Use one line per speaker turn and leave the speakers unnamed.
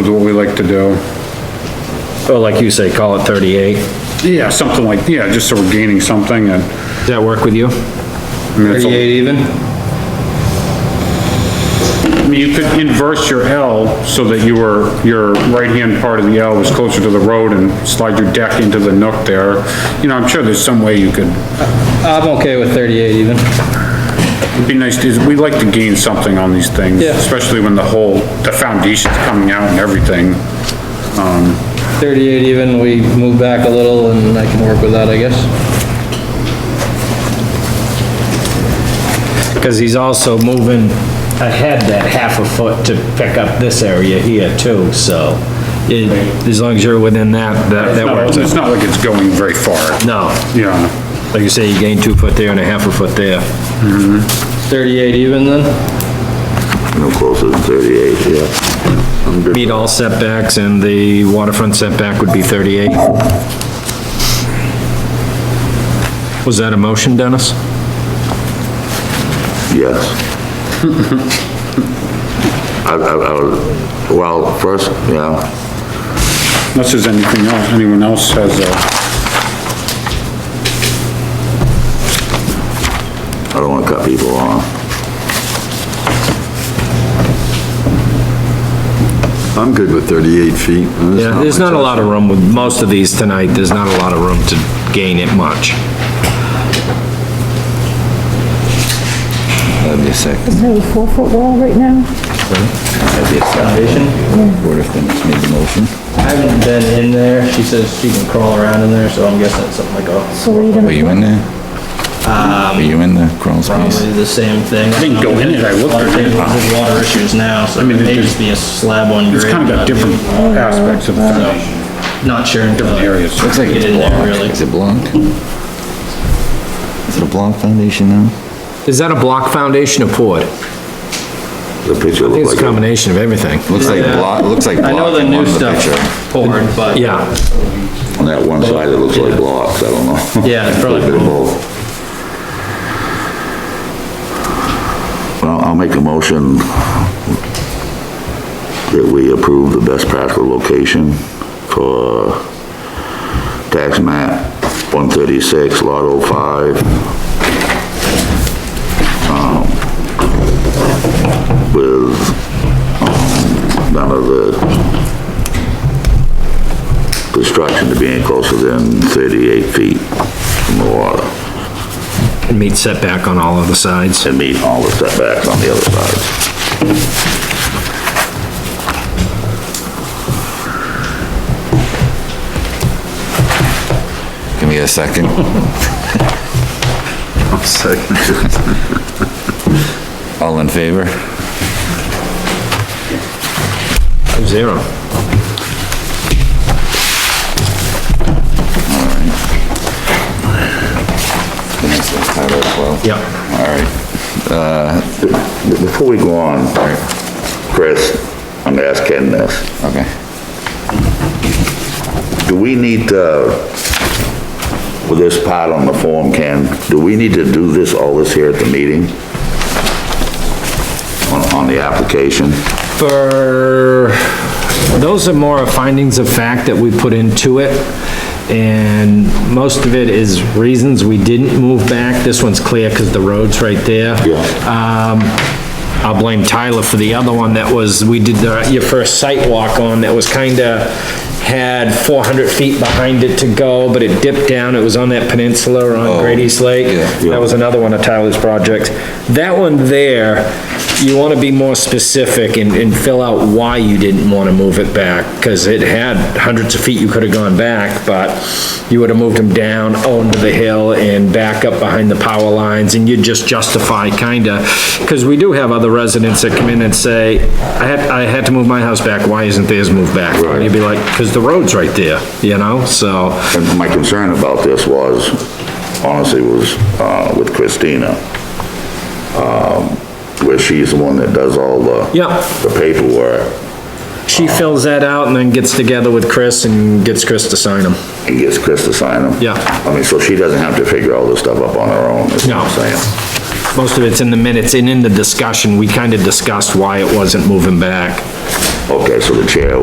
is what we like to do.
Oh, like you say, call it 38.
Yeah, something like, yeah, just so we're gaining something and.
Does that work with you?
I mean, it's a-
even?
I mean, you could inverse your L so that your, your right-hand part of the L was closer to the road and slide your deck into the nook there. You know, I'm sure there's some way you could,
I'm okay with 38 even.
it'd be nice, to- we like to gain something on these things.
Yeah.
Especially when the whole, the foundation's coming out and everything.
38 even, we move back a little and I can work with that, I guess.
Because he's also moving ahead that half a foot to pick up this area here too, so it- as long as you're within that, that that works.
It's not like it's going very far.
No,
Yeah,
like you say, you gain two foot there and a half a foot there.
38 Mm-hmm. even then?
No closer than 38, yeah. I'm good.
Meet all setbacks and the waterfront setback would be 38. Was that a motion, Dennis?
Yes. I, I, I was, well, first, you know,
unless there's anything else, anyone else has a,
I don't wanna cut people off.
I'm good with 38 feet.
Yeah, there's not a lot of room with most of these tonight, there's not a lot of room to gain it much.
That'd be a second,
Is there a four-foot wall right now?
that'd be a second.
Foundation?
Board of Finance made the motion.
I haven't been in there. She says she can crawl around in there, so I'm guessing it's something like a,
So what are you gonna,
Were you in there? Um. Were you in the crawl space?
probably the same thing. I
didn't go in it, I looked.
There's water issues now, so it
mean, it
may
just-
just be a slab on grade.
it's kind of got
not-
different aspects of the foundation,
Not sure until
different
I
areas.
Looks like
get
it's
in there
blocked.
really.
Is it blocked? Is it a block foundation now?
Is that a block foundation or poured?
The picture
I think
looks
it's a
like,
combination of everything.
looks like block, looks like
I know
block
the
in one
new
of the
stuff
picture.
poured, but.
Yeah,
On that one side, it looks like blocks, I don't know.
Yeah, it's probably
A bit of both. Well, I'll make a motion that we approve the best practical location for tax map one thirty-six, lot oh five. Um, With, um, none of the construction to being closer than 38 feet from the water
and meet setback on all of the sides.
and meet all the setbacks on the other side. Give me a second. Second. All in favor?
Zero. Yeah.
All right. Uh, b- Before we go on, Chris, I'm gonna ask Ken this. Okay. Do we need, uh, with this part on the form, Ken, do we need to do this, all this here at the meeting? On, on the application?
For, those are more findings of fact that we put into it, and most of it is reasons we didn't move back. This one's clear because the road's right there.
Yeah.
Um, I'll blame Tyler for the other one that was, we did the- your first site walk on that was kinda, had 400 feet behind it to go, but it dipped down, it was on that peninsula on Grady's Lake.
Oh, yeah.
That was another one of Tyler's projects. That one there, you want to be more specific and, and fill out why you didn't want to move it back, because it had hundreds of feet you could have gone back, but you would have moved them down onto the hill and back up behind the power lines, and you'd just justify kinda, because we do have other residents that come in and say, I had, I had to move my house back, why isn't theirs moved back? And you'd be like, because the road's right there, you know, so,
And my concern about this was, honestly, was uh, with Christina, um, where she's the one that does all the
Yeah.
the paperwork
she fills that out and then gets together with Chris and gets Chris to sign them.
and gets Chris to sign them.
Yeah.
I mean, so she doesn't have to figure all this stuff up on her own, is what
No.
I'm saying.
Most of it's in the minutes, and in the discussion, we kind of discussed why it wasn't moving back.
Okay, so the chair